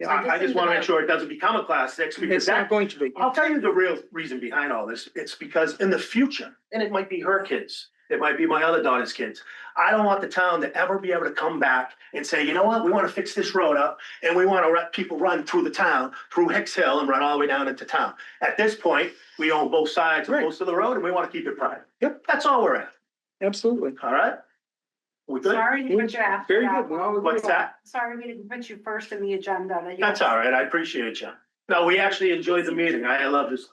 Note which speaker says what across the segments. Speaker 1: Yeah.
Speaker 2: I, I just wanna make sure it doesn't become a class six, because
Speaker 1: It's
Speaker 2: that
Speaker 1: not going to be.
Speaker 2: I'll tell you the real reason behind all this. It's because in the future, and it might be her kids, it might be my other daughter's kids. I don't want the town to ever be able to come back and say, you know what, we want to fix this road up and we want to let people run through the town, through Hicks Hill and run all the way down into town. At this point, we own both sides of
Speaker 1: Right.
Speaker 2: most of the road and we want to keep it private.
Speaker 1: Yep.
Speaker 2: That's all we're at,
Speaker 1: Absolutely.
Speaker 2: all right? We good?
Speaker 3: Sorry to put you after
Speaker 1: Very good.
Speaker 3: that.
Speaker 1: Well,
Speaker 2: What's that?
Speaker 3: Sorry we didn't put you first in the agenda. that you-
Speaker 2: That's all right. I appreciate you. No, we actually enjoyed the meeting. I I love this.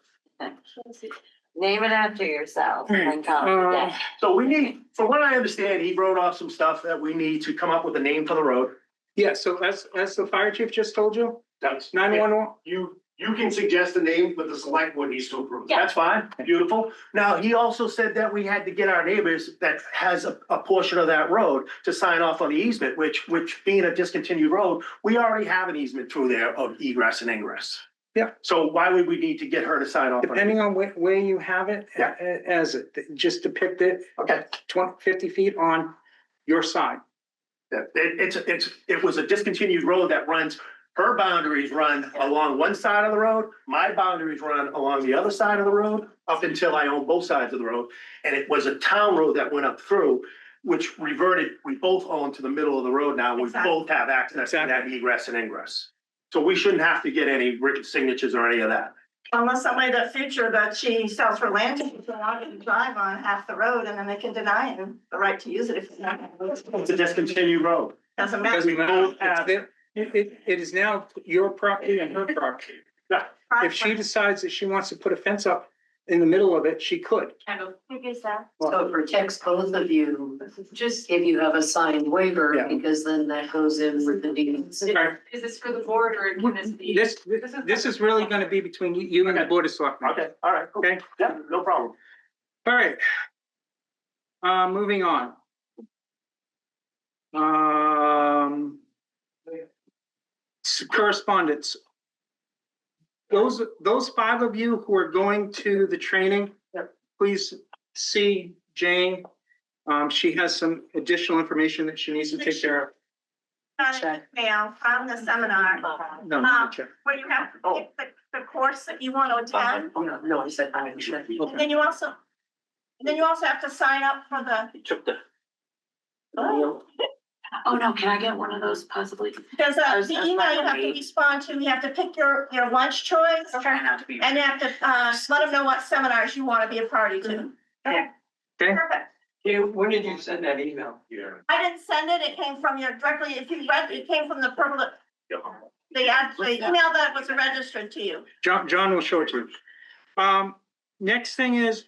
Speaker 4: Name it after
Speaker 2: Hmm.
Speaker 4: yourself and
Speaker 5: Uh,
Speaker 4: call it a day.
Speaker 2: So we need, from what I understand, he wrote off some stuff that we need to come up with a name for the road.
Speaker 1: Yeah, so as, as the fire chief just told you,
Speaker 6: That's,
Speaker 1: nine one one,
Speaker 6: you, you can suggest a name, but the select board needs to approve. it.
Speaker 2: That's fine, beautiful. Now, he also said that we had to get our neighbors that has a, a portion of that road to sign off on the easement, which, which being a discontinued road, we already have an easement through there of egress and ingress.
Speaker 1: Yeah.
Speaker 2: So why would we need to get her to sign off? on it?
Speaker 1: depending on where, where you have it, a-
Speaker 2: Yeah.
Speaker 1: a- as it, just depict it
Speaker 2: Okay,
Speaker 1: twenty, fifty feet on your side.
Speaker 2: Yeah, it, it's, it's, it was a discontinued road that runs, her boundaries run along one side of the road, my boundaries run along the other side of the road, up until I own both sides of the road. And it was a town road that went up through, which reverted, we both own to the middle of the road now, we
Speaker 3: Exactly.
Speaker 2: both have access to that egress and ingress. So we shouldn't have to get any written signatures or any of that.
Speaker 5: Unless somebody in the future that she sells her land to, they're not gonna drive on half the road and then they can deny him the right to use it if it's not.
Speaker 2: It's a discontinued road.
Speaker 5: Doesn't matter.
Speaker 1: Doesn't matter. It's
Speaker 2: have-
Speaker 1: there. It, it, it is now your property and her property. If she decides that she wants to put a fence up in the middle of it, she could.
Speaker 4: So it protects both of you, just if you have a signed
Speaker 1: Yeah.
Speaker 4: waiver, because then that goes in with the deeds.
Speaker 1: Right.
Speaker 3: Is this for the board or can this be?
Speaker 1: This, this is really gonna be between you- you and the board of selectmen.
Speaker 2: Okay, all right, cool.
Speaker 1: Okay.
Speaker 2: Yeah, no problem.
Speaker 1: All right. Uh, moving on. Um. s- Correspondence. Those, those five of you who are going to the training, please see Jane. Um, she has some additional information that she needs to take care of.
Speaker 5: Got an email from the seminar
Speaker 1: No, no, check.
Speaker 5: where you have to pick the, the course that you want to attend.
Speaker 4: Oh, no, no, I said I was sure.
Speaker 1: Okay.
Speaker 5: And then you also, and then you also have to sign up for the,
Speaker 2: Took the.
Speaker 4: Oh, no, can I get one of those possibly?
Speaker 5: there's a,
Speaker 4: There's
Speaker 5: uh, the
Speaker 4: a
Speaker 5: email you have to
Speaker 4: fine.
Speaker 5: respond to. You have to pick your, your lunch choice.
Speaker 4: Try not to be.
Speaker 5: And you have to, uh, let them know what seminars you want to be a party to.
Speaker 4: Okay.
Speaker 1: Okay.
Speaker 5: Perfect.
Speaker 7: when did you send that email?
Speaker 6: Yeah.
Speaker 5: I didn't send it, it came from your directly, if you read, it came from the purple, the ad, the email that was registered to you.
Speaker 1: John, John will show it to you. Um, next thing is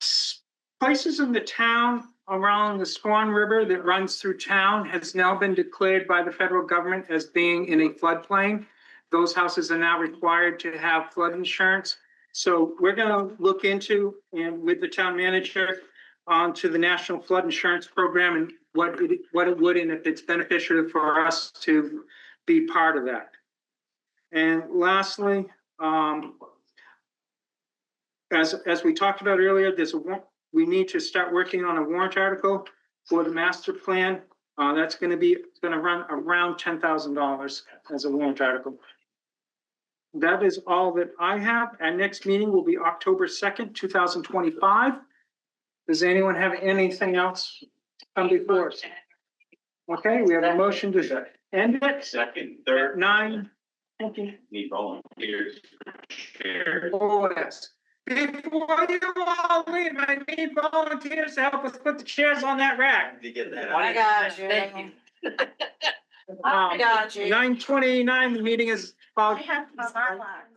Speaker 1: s- places in the town around the Swan River that runs through town has now been declared by the federal government as being in a floodplain. Those houses are now required to have flood insurance. So we're gonna look into and with the town manager onto the National Flood Insurance Program and what it, what it would and if it's beneficial for us to be part of that. And lastly, um, as, as we talked about earlier, there's a, wa- we need to start working on a warrant article for the master plan. Uh, that's gonna be, it's gonna run around ten thousand dollars as a warrant article. That is all that I have. Our next meeting will be October second, two thousand twenty-five. Does anyone have anything else to come before us? Okay, we have a motion to end it
Speaker 8: Second,
Speaker 1: at
Speaker 8: third,
Speaker 1: nine
Speaker 8: need volunteers. Chair.
Speaker 1: Boys. Before you all leave, I need volunteers to help us put the chairs on that rack.
Speaker 8: Did you get that?
Speaker 4: I got you.
Speaker 7: Thank you.
Speaker 4: I got you.
Speaker 1: Nine Um, twenty-nine, the meeting is
Speaker 5: I
Speaker 1: about
Speaker 5: have to,